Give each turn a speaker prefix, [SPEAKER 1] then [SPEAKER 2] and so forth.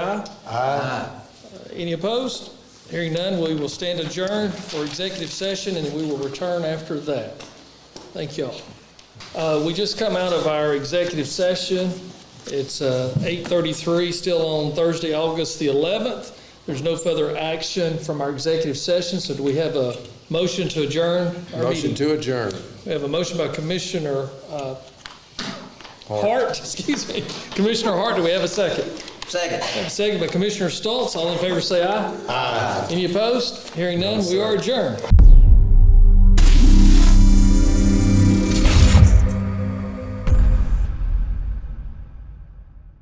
[SPEAKER 1] Aye. Any opposed? Hearing none, we will stand adjourned for executive session, and we will return after that. Thank y'all. Uh, We just come out of our executive session. It's uh, 8:33, still on Thursday, August the 11th. There's no further action from our executive session, so do we have a motion to adjourn our
[SPEAKER 2] Motion
[SPEAKER 1] meeting?
[SPEAKER 2] to adjourn.
[SPEAKER 1] We have a motion by Commissioner uh, Hart, excuse me, Commissioner Hart, do we have a second?
[SPEAKER 3] Second.
[SPEAKER 1] Second by Commissioner Stoltz, all in favor say aye. Aye. Any opposed? Hearing none, we are adjourned.